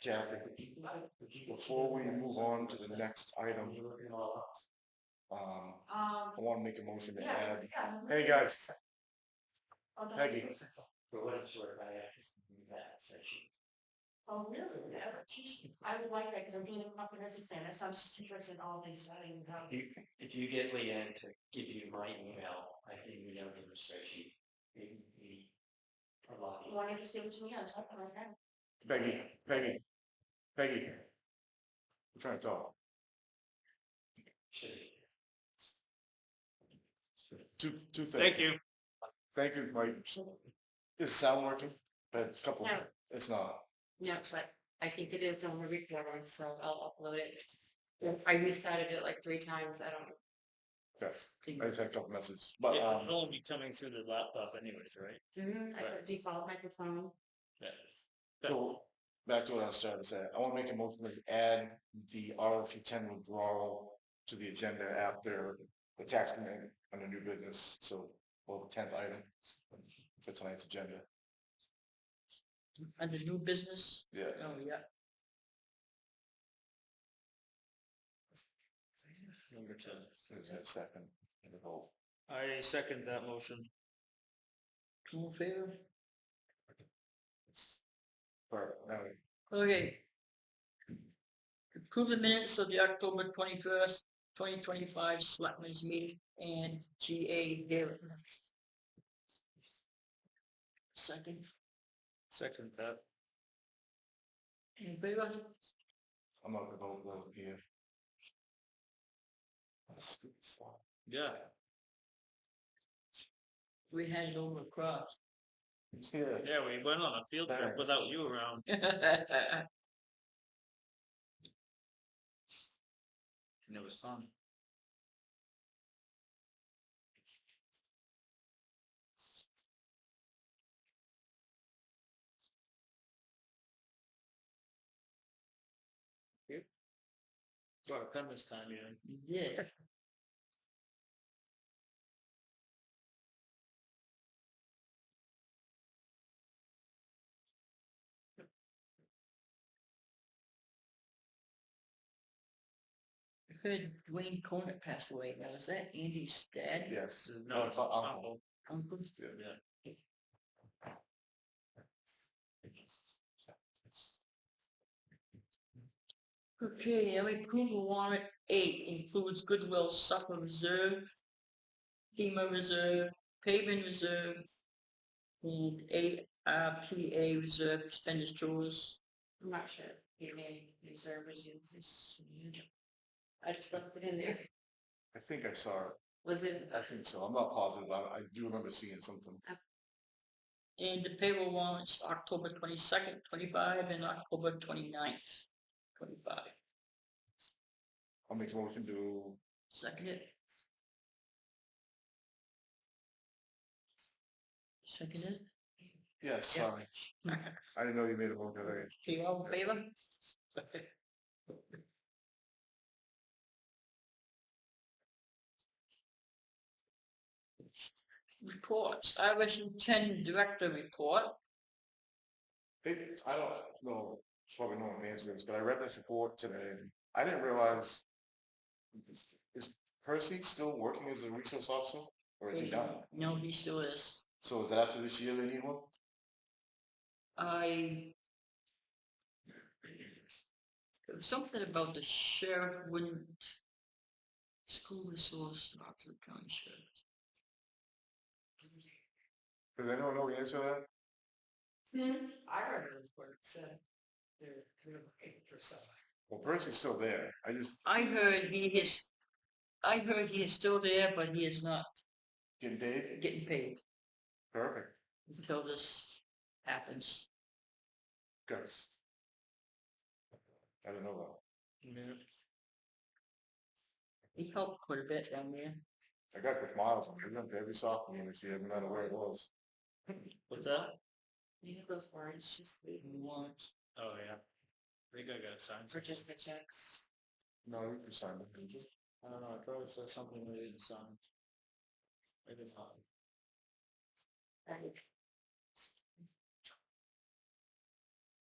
Kathy, before we move on to the next item, um, Um, I want to make a motion to yeah, add, yeah. no, hey, no, guys, oh, no, Peggy. For what it's worth, I actually knew that section. Oh, really? That would teach- I would like that because I'm doing a comprehensive plan. That sounds just interesting, all these, I didn't know. You- If you get Leanne to give you my email, I think you know the restriction. Maybe we allow You want to just give it to me? I'm talking like that. Peggy, Peggy, Peggy. I'm trying to talk. Should. Two, two things. Thank you. Thank you, Mike. Is sound working? A couple, No. it's not. No, but I think it is on the recorder, so I'll upload it. I restarted it like three times. I don't. Yes, I just had a couple messages, but, Yeah, um, it'll only be coming through the laptop anyways, right? I put default microphone. Yeah. So, back to what I was trying to say, I wanna make a motion to add the RFC ten withdrawal to the agenda after the tax committee on the new business, so, well, the tenth item for tonight's agenda, Under new business? yeah. Oh, yeah. Number ten. Is there a second? And a vote. I second that motion. All in favor? Or, no, Okay. Approve the minutes of the October twenty-first, twenty twenty-five Selectmen's meeting and GA hearing. Second. Second that. In favor? I'm not gonna vote, vote here. That's stupid. Yeah. We had it over across. Yeah. Yeah, we went on a field trip Thanks. without you around. And it was fun. Brought a pen this time, yeah. Yeah. Heard Dwayne Conant passed away. Now, is that Andy's dad? Yes. No, it's it's not uncle. Uncle? Yeah. Yeah. Okay, every approval warrant eight includes Goodwill Supper Reserve, FEMA Reserve, Paving Reserve, and ARPA Reserve expenditures. I'm not sure. You may reserve as you this. I just left it in there. I think I saw it, Was it? I think so, I'm not positive, I, I do remember seeing something, And the payroll warrants, October twenty-second, twenty-five, and October 29th, twenty-five. I'll make a motion to Second it. Second it. Yes, sorry. I didn't know you made a motion today. Okay, all in favor? Reports, I was ten director report. It, I don't know, it's probably no one answers this, but I read this report today. and I didn't realize. Is Percy still working as a resource officer or is he done? No, he still is. So is that after this year they need one? I. There was something about the sheriff wouldn't. School resource, Oxford County Sheriff. Does anyone know the answer to that? Hmm? I read it where it said they're kind of eight or something. Well, Percy's still there. I just I heard he is, I heard he is still there, but he is not getting paid. getting paid Perfect. until this happens. Good. I don't know though. He helped quite a bit down there. I got good miles on it. I went to every softball game this year, no matter where it was. What's that? You know those words, just the, Once. Oh, yeah. I think I got signed. or just the checks. No, you can sign it. I don't know, I probably saw something we didn't sign. Maybe not. Right.